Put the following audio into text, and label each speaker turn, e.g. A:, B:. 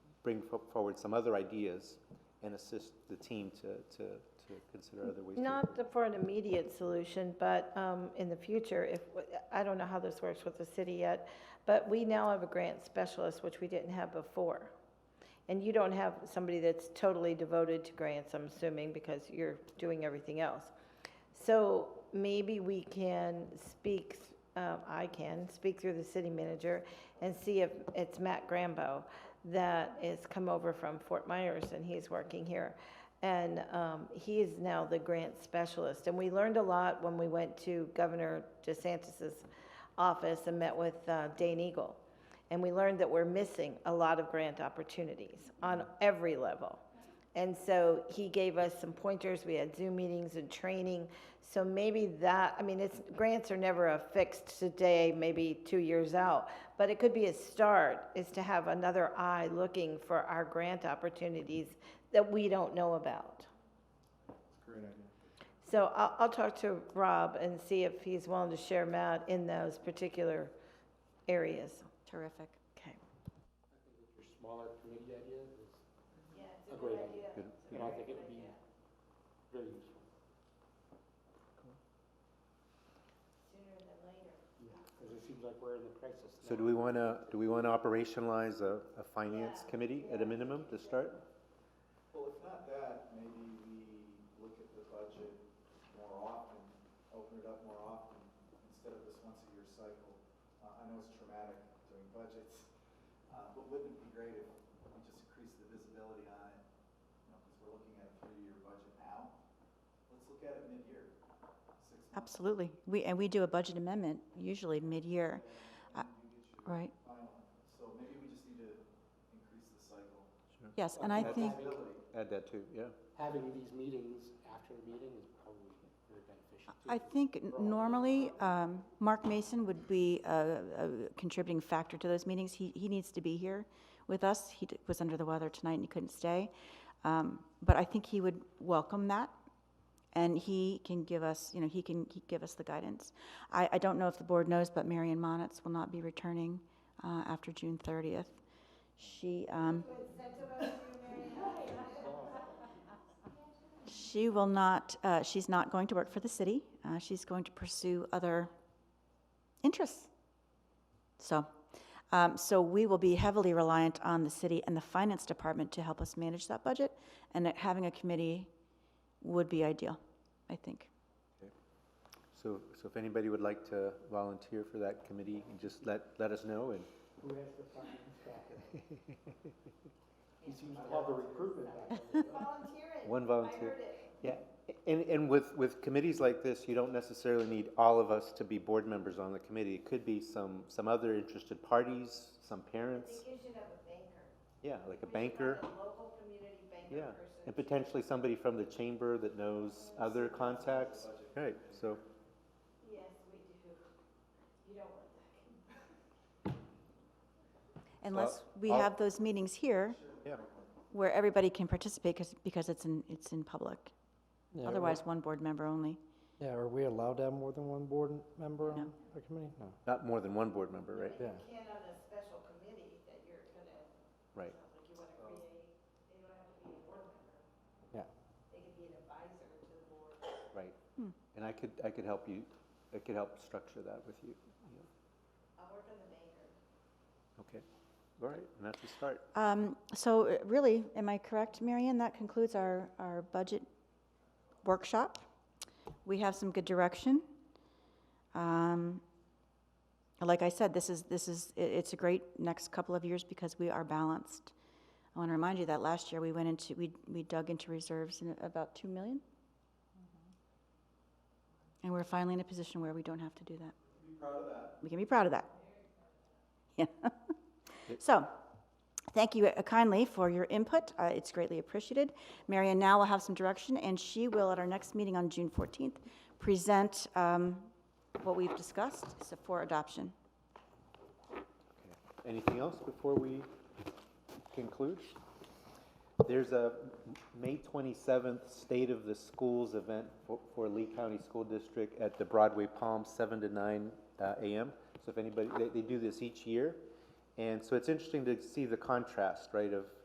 A: bring fo- forward some other ideas and assist the team to, to, to consider other ways. to
B: Not for an immediate solution, but um, in the future, if, I don't know how this works with the city yet, but we now have a grant specialist, which we didn't have before. And you don't have somebody that's totally devoted to grants, I'm assuming, because you're doing everything else. So maybe we can speak, uh, I can, speak through the city manager and see if it's Matt Grambo that is come over from Fort Myers and he's working here. And um, he is now the grant specialist. And we learned a lot when we went to Governor DeSantis's office and met with uh, Dane Eagle. And we learned that we're missing a lot of grant opportunities on every level. And so he gave us some pointers, we had Zoom meetings and training. So maybe that, I mean, it's, grants are never a fixed today, maybe two years out. But it could be a start, is to have another eye looking for our grant opportunities that we don't know about.
C: Great idea.
B: So I'll, I'll talk to Rob and see if he's willing to share Matt in those particular areas.
D: Terrific.
B: Okay.
C: Your smaller committee idea is
B: Yeah,
C: a great idea,
A: Good.
C: and I think it would be very useful. Yeah, because it seems like we're in a crisis now.
A: So do we want to, do we want to operationalize a, a finance committee at a minimum to start?
E: Well, if not that, maybe we look at the budget more often, open it up more often, instead of this once-a-year cycle. Uh, I know it's traumatic doing budgets, uh, but wouldn't it be great if we just increased the visibility on it? You know, because we're looking at a three-year budget now. Let's look at it mid-year, six months,
D: Absolutely. We, and we do a budget amendment usually mid-year. Uh, Right,
E: final. So maybe we just need to increase the cycle.
D: yes, and I
A: That's-
D: think,
E: Visibility.
A: Add that too, yeah.
C: Having these meetings after the meeting is probably very beneficial. too,
D: I
C: 'cause
D: think n- normally, um, Mark Mason would be a, a contributing factor to those meetings. He, he needs to be here with us. He d- was under the weather tonight and he couldn't stay. Um, but I think he would welcome that. And he can give us, you know, he can, he give us the guidance. I, I don't know if the board knows, but Marion Monitz will not be returning, uh, after June thirtieth. She, um, She will not, uh, she's not going to work for the city. Uh, she's going to pursue other interests. So, um, so we will be heavily reliant on the city and the finance department to help us manage that budget. And that having a committee would be ideal, I think.
A: So, so if anybody would like to volunteer for that committee, you just let, let us know and
C: Who has the finance background? He seems to have the recruitment background.
A: one volunteer. Yeah, and, and with, with committees like this, you don't necessarily need all of us to be board members on the committee. It could be some, some other interested parties, some parents,
B: you should have a banker.
A: yeah, like a banker.
B: local community
A: Yeah, and potentially somebody from the chamber that knows other contacts. Right, so,
B: Yes, we do. You don't want that.
D: Unless we
A: I'll-
D: have those meetings here
A: yeah.
D: where everybody can participate because, because it's in, it's in public.
F: Yeah, or-
D: Otherwise, one board member only.
F: Yeah, are we allowed to have more than one board m- member
D: No.
F: on the committee? No.
A: Not more than one board member, right?
F: Yeah.
B: can on a special committee that you're gonna,
A: Right.
B: like you wanna create, they don't have to be a board member.
F: Yeah.
B: They could be an advisor to the board.
A: Right. And I could, I could help you, I could help structure that with you. Yeah.
B: I'll work on the banker.
A: Okay, all right, and that's a start.
D: Um, So uh, really, am I correct, Marion? That concludes our, our budget workshop. We have some good direction. Um, Like I said, this is, this is, i- it's a great next couple of years because we are balanced. I want to remind you that last year we went into, we, we dug into reserves in about 2 million. And we're finally in a position where we don't have to do that.
E: Be proud of that.
D: We can be proud of that. Yeah. So, thank you uh, kindly for your input. Uh, It's greatly appreciated. Marion now will have some direction, and she will, at our next meeting on June 14th, present um, what we've discussed so for adoption.
A: Okay. Anything else before we conclude? There's a May 27th State of the Schools event for- for Lee County School District at the Broadway Palms, 7 to 9 uh, a.m. So if anybody, they, they do this each year. And so it's interesting to see the contrast, right, of